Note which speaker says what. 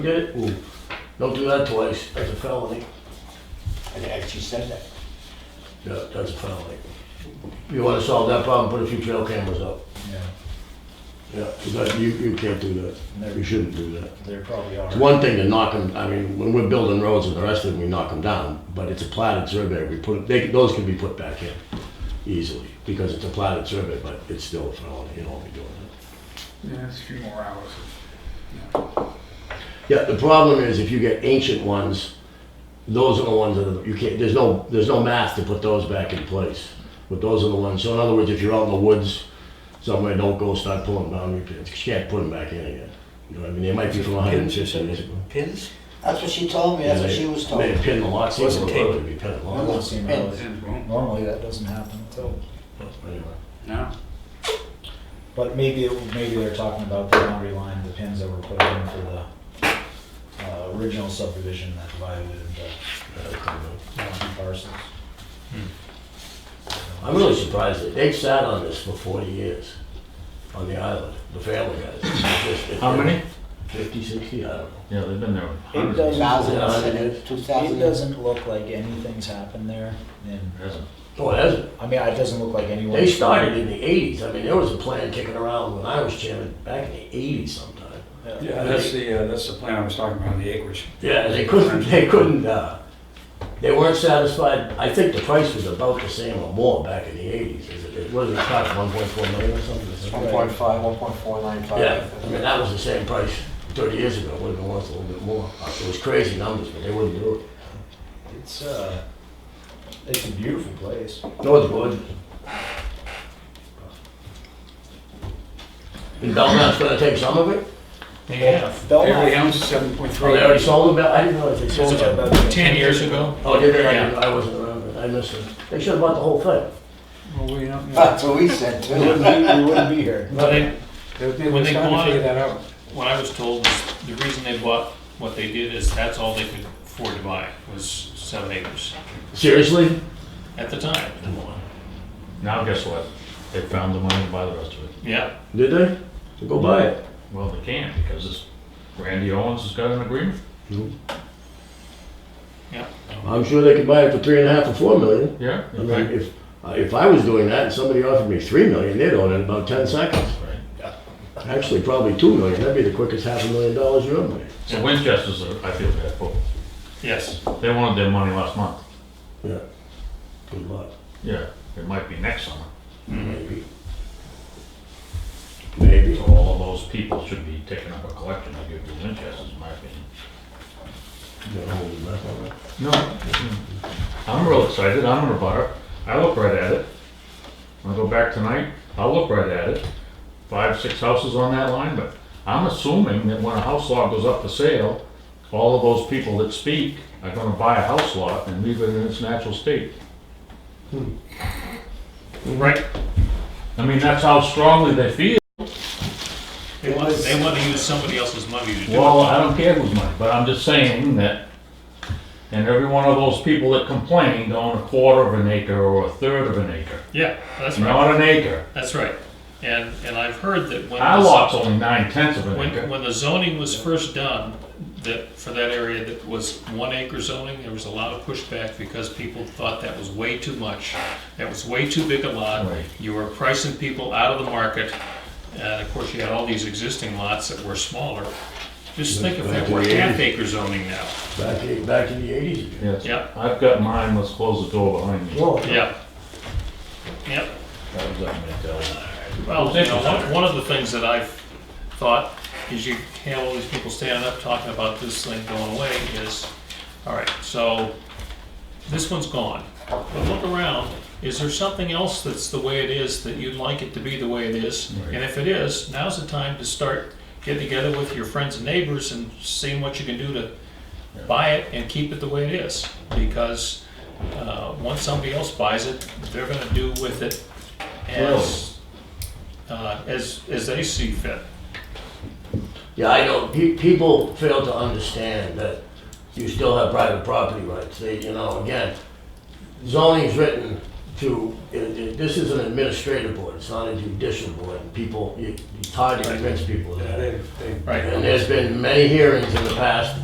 Speaker 1: Did it? Don't do that twice, that's a felony.
Speaker 2: And it actually said that.
Speaker 1: Yeah, that's a felony. You wanna solve that problem, put a few trail cameras up.
Speaker 2: Yeah,
Speaker 1: Yeah, 'cause that, you, you can't do that.
Speaker 2: Never.
Speaker 1: You shouldn't do that.
Speaker 2: there probably
Speaker 1: It's
Speaker 2: are.
Speaker 1: one thing to knock them, I mean, when we're building roads and the rest of them, we knock them down, but it's a platted survey, we put, they, those can be put back in easily, because it's a platted survey, but it's still a felony, you don't wanna be doing that.
Speaker 3: Yeah, it's a few more hours.
Speaker 1: Yeah, the problem is if you get ancient ones, those are the ones that you can't, there's no, there's no math to put those back in place. But those are the ones, so in other words, if you're out in the woods somewhere, don't go start pulling boundary pins, 'cause you can't put them back in again. You know what I mean? They might be from hundred and fifty years ago.
Speaker 4: Pins?
Speaker 2: That's what she told me, that's what she was told.
Speaker 1: They pin the lots, they
Speaker 4: Wasn't
Speaker 1: were
Speaker 4: tape.
Speaker 1: probably be pinning
Speaker 2: That
Speaker 1: lots.
Speaker 2: doesn't seem
Speaker 4: Yeah.
Speaker 2: really- Normally, that doesn't happen at all.
Speaker 1: Anyway.
Speaker 3: No.
Speaker 2: But maybe, it- maybe they're talking about the boundary line, the pins that were put in for the uh, original subdivision that divided it into
Speaker 1: Yeah, I don't know.
Speaker 2: two parcels.
Speaker 1: I'm really surprised that they've sat on this for forty years, on the island, the family guys. It's just-
Speaker 5: How many?
Speaker 1: Fifty, sixty, I don't know.
Speaker 5: Yeah, they've been there
Speaker 2: It
Speaker 5: hundreds of years.
Speaker 1: Thousands
Speaker 2: doesn't,
Speaker 1: and
Speaker 2: it
Speaker 4: Two
Speaker 2: doesn't look like anything's happened there, and,
Speaker 5: It hasn't.
Speaker 1: Oh, it hasn't.
Speaker 2: I mean, it doesn't look like anyone.
Speaker 1: They started in the eighties, I mean, there was a plan kicking around when I was chairman back in the eighties sometime.
Speaker 6: Yeah, that's the, uh, that's the plan I was talking about, the acreage.
Speaker 1: Yeah, they couldn't, they couldn't, uh, they weren't satisfied, I think the price was about the same or more back in the eighties, it, it wasn't cost one point four million or something. is that right?
Speaker 2: 1.4.
Speaker 4: 1.495.
Speaker 1: Yeah, I mean, that was the same price thirty years ago, it would've been worth a little bit more, Uh, it was crazy numbers, but they wouldn't do it.
Speaker 2: It's, uh, it's a beautiful place.
Speaker 1: No, it's good. And Belmont's gonna take some of it,
Speaker 2: Yeah.
Speaker 6: Every ounce is seven point
Speaker 1: oh,
Speaker 6: three.
Speaker 1: they already sold it, I didn't know they sold it.
Speaker 2: Ten years ago.
Speaker 1: Oh, did they? I- I wasn't around, I missed it. They should have bought the whole thing.
Speaker 6: Well, we don't, know.
Speaker 4: That's what we said
Speaker 2: We wouldn't
Speaker 4: too.
Speaker 2: be, we wouldn't be here.
Speaker 5: Well, they,
Speaker 6: They- they
Speaker 7: When
Speaker 6: were
Speaker 7: they
Speaker 6: starting to
Speaker 7: bought
Speaker 6: figure
Speaker 7: it-
Speaker 6: that out.
Speaker 7: What I was told is the reason they bought what they did is that's all they could afford to buy was seven acres
Speaker 1: Seriously?
Speaker 7: at the time.
Speaker 5: now guess what? They found the money to buy the rest of it.
Speaker 7: Yeah,
Speaker 1: Did they? Go buy it.
Speaker 5: Well, they can't because this, Randy Owens has got an agreement.
Speaker 7: yeah.
Speaker 1: I'm sure they could buy it for three and a half or four million.
Speaker 5: Yeah.
Speaker 1: I mean, if, uh, if I was doing that and somebody offered me three million, they'd own it in about ten seconds.
Speaker 5: Right.
Speaker 1: Actually, probably two million. That'd be the quickest half a million dollars you're ever made.
Speaker 5: So Winchester's, are- I feel bad for. them.
Speaker 7: Yes,
Speaker 5: They wanted their money last month.
Speaker 1: Yeah. Good luck,
Speaker 5: Yeah. It might be next summer.
Speaker 1: maybe. Maybe.
Speaker 5: So all of those people should be taking up a collection to give to Winchester's, in my opinion.
Speaker 1: Don't hold your breath on it.
Speaker 5: No. I'm real excited. I'm in a butter. I look right at it. I'll go back tonight. I'll look right at it. Five, six houses on that line, but I'm assuming that when a house lot goes up for sale, all of those people that speak are gonna buy a house lot and leave it in its natural state.
Speaker 7: right.
Speaker 5: I mean, that's how strongly they feel.
Speaker 7: They want, they want to use somebody else's money to do
Speaker 5: Well,
Speaker 7: it.
Speaker 5: I don't care who's money, but I'm just saying that, and every one of those people that complained own a quarter of an acre or a third of an acre,
Speaker 7: Yeah, that's right,
Speaker 5: not an acre.
Speaker 7: that's right. And, and I've heard that when.
Speaker 5: Our
Speaker 7: this-
Speaker 5: lot's only nine tenths of an
Speaker 7: When,
Speaker 5: acre.
Speaker 7: when the zoning was first done, that, for that area that was one acre zoning, there was a lot of pushback because people thought that was way too much. That was way too big a lot.
Speaker 5: Right.
Speaker 7: You were pricing people out of the market. And of course, you had all these existing lots that were smaller. Just think if that were half acre zoning now.
Speaker 1: Back, in- back in the eighties again.
Speaker 5: Yes.
Speaker 7: Yeah.
Speaker 5: I've got mine, let's close the door behind me.
Speaker 1: Whoa.
Speaker 7: Yeah. Yep.
Speaker 5: That was that mentality.
Speaker 7: Well, you know, one, one of the things that I've thought is you have all these people standing up talking about this thing going away is, all right, so this one's gone. But look around, is there something else that's the way it is that you'd like it to be the way it is?
Speaker 5: Right.
Speaker 7: And if it is, now's the time to start getting together with your friends and neighbors and seeing what you can do to buy it and keep it the way it is. Because, uh, once somebody else buys it, they're gonna do with it as, uh, as, as they see fit.
Speaker 1: Yeah, I know, pe- people fail to understand that you still have private property rights, they, you know, again, zoning's written to, it- it- this is an administrative board, it's not a judicial board. People, you- it's hard to convince people of
Speaker 6: Yeah,
Speaker 1: that.
Speaker 6: they, they
Speaker 7: Right.
Speaker 1: And there's been many hearings in the past